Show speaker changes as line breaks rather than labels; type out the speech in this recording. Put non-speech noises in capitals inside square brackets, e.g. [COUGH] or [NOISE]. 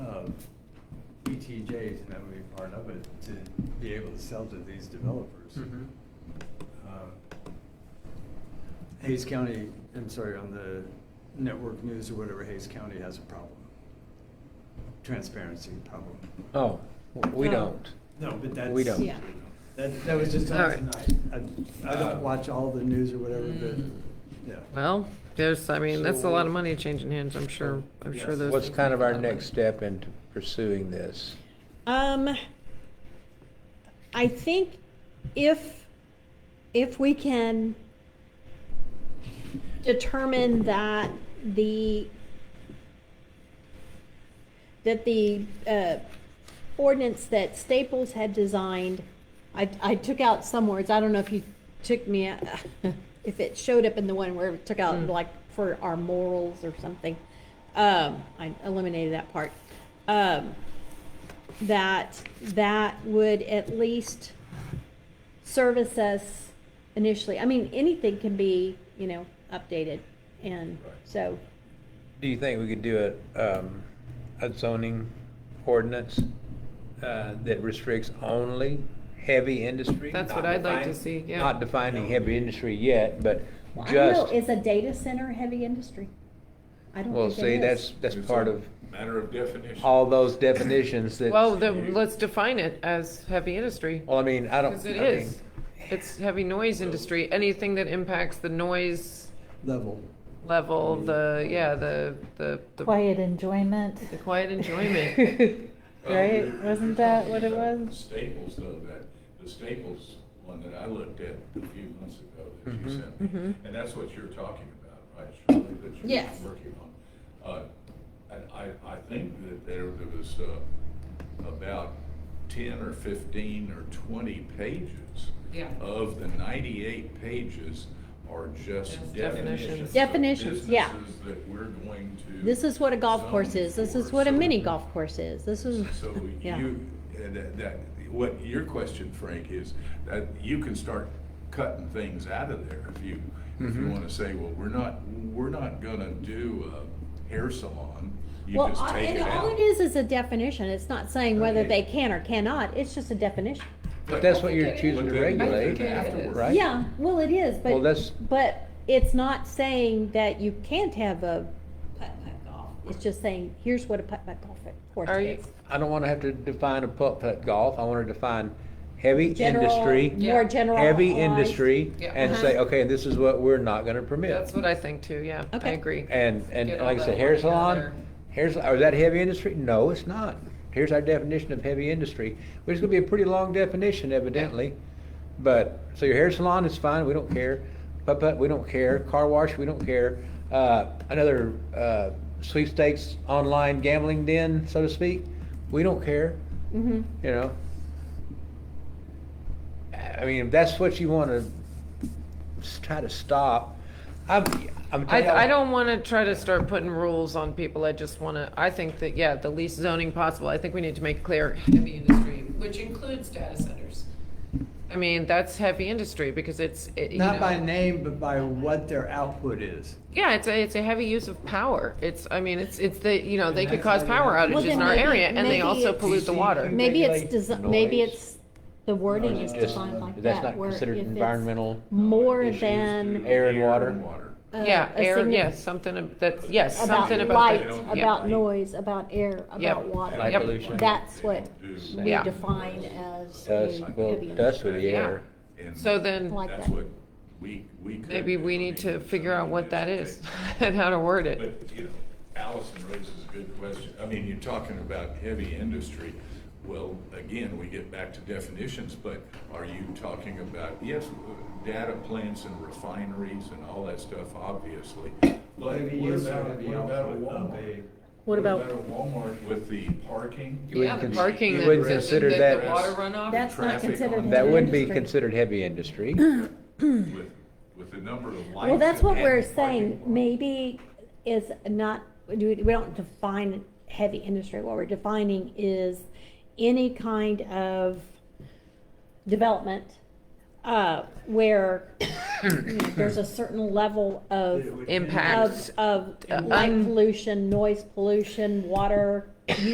TJs, E and that would be part of it, to be able to sell to these developers.
Mm-hmm.
Mhm.
Um, Hayes County, I'm sorry, on the network news or whatever, Hayes County has a problem. Transparency problem.
Oh, w- we
Oh.
don't.
No, but that's.
We don't.
Yeah.
That, that was just
All
on
right.
tonight. Um, I I don't watch all the news or whatever, but, yeah.
Well, there's, I mean, that's a lot of
So-
money changing hands, I'm sure, I'm sure
Yes.
those.
What's
things
kind of
will
our
happen.
next step into pursuing this?
Um, I think if, if we can determine that the, that the, uh, ordinance that Staples had designed, I, I took out some words, I don't know if you took me, out- [LAUGHS] if it showed up in the one where it took out
Mm.
like for our morals or something. Um, I eliminated that part. Um, that that would at least service us initially. I mean, anything can be, you know, updated. And so,
Do you think we could do a, um, a zoning ordinance, uh, that restricts only heavy industry?
That's
Not
what I'd like to
define-
see, yeah.
Not defining heavy industry yet, but
I don't know,
just,
is a data center heavy industry? I don't
well,
think it
see,
is.
that's, that's
It's
part
a
of
Matter of definition.
all those definitions that.
Well, then, let's define it as heavy industry,
Well, I mean, Oh, I don't.
because it
I mean,
is. It's heavy noise industry, anything that impacts the noise
Level.
level, the, yeah, the, the. the-
Quiet enjoyment,
The
[LAUGHS]
quiet enjoyment.
right? Wasn't that what it
The
was?
Staples, though, that, the Staples one that I looked at a few months ago that you
Mhm.
sent me. And that's what you're talking about, right, Shirley, that you're
Mm-hmm. Yes.
working on. Uh, And I, I think that there there was uh, about ten or fifteen or twenty pages
Yeah.
of the ninety-eight pages are just
Just
definitions.
definitions.
of
Definitions, yeah.
businesses That we're going to.
This is what a golf course
zone
is. This is
for.
what a
So-
mini golf course is. This is,
so
Mm. yeah.
you, and that- that, what your question, Frank, is that you can start cutting things out of there if you, if you
Mhm.
want to say, well, we're not, we're not gonna do a hair salon. You
well,
just
I-
take
and
it
all
out.
it is is a definition. It's not saying whether
Okay.
they can or cannot. It's just a definition.
But that's what you're
But
choosing to
then-
regulate,
then afterwards.
right?
Yeah, well, it is, but.
Well, that's-
But it's not saying that you can't have a putt-putt golf. It's just saying, here's what a putt-putt golf course
Are you,
is.
I don't wanna have to define a putt-putt golf, I wanna define heavy
General-
industry,
Yeah.
More general.
heavy
lines.
industry,
Yeah.
and
Uh-huh.
say, okay, this is what we're not gonna permit.
that's what I think too, yeah, I
Okay.
agree.
And, and
Get all
like I
that
said, hair
money out
salon,
there.
hair, sal- is that heavy industry? No, it's not. Here's our definition of heavy industry, which is gonna be a pretty long definition evidently. But, so your hair salon is fine, we don't care. Putt-putt, we don't care. Car wash, we don't care. Uh, another, uh, sweepstakes online gambling den, so to speak, we don't care.
Mhm.
you know. I mean, if that's what you want to try to stop, I'm, I'm telling you-
I, I don't want to try to start putting rules on people. I just want to, I think that, yeah, the least zoning possible. I think we need to make clear heavy industry, which includes data centers. I mean, that's heavy industry because it's, it, you
Not
know-
by name, but by what their output is.
Yeah, it's a, it's a heavy use of power. It's, I mean, it's, it's the, you know, they could cause power
Well,
outages
then
in our
maybe-
area and they
maybe
also
it's-
pollute the water.
Maybe it's,
Regulate
desi- maybe
noise.
it's, the wording
Noise
is
is just-
defined like that.
That's not
where
considered
if it's
environmental. uh,
More
Issues
than.
to
Air and water.
water.
uh,
Yeah,
a
air,
signi-
yes, something ab- that, yes,
About
something about
light,
that.
that.
Yeah.
about noise, about air,
Yep.
about water.
Light
Yep.
pollution.
That's what
Do-
we
Yeah.
define as a
Dust,
heavy
well,
industry.
dust with the
Yeah.
air.
and
So then,
Like
That's
that.
what we, we could.
maybe
do.
we
I
need
mean,
to figure out what that
somebody
is [LAUGHS]
take-
and how to word it.
But, you know, Allison raises a good question. I mean, you're talking about heavy industry. Well, again, we get back to definitions, but are you talking about, yes, data plants and refineries and all that stuff, obviously. But what
Heavy use or
about,
heavy
what about a
output of
Walmart?
a-
What about-
a Walmart with the parking?
You wouldn't
Yeah, the
cons-
parking
you
that-
wouldn't
that-
consider
The
that-
water runoff.
That's not
Traffic
considered
on-
That wouldn't be
industry.
considered heavy industry.
With, with the number of lights.
Well, that's what
and
we're
parking
saying,
lots.
maybe is not, we we don't define heavy industry, what we're defining is any kind of development, uh, where you know, there's a certain level of,
It would-
Impact.
of, of
Uh,
light
un-
pollution, noise pollution, water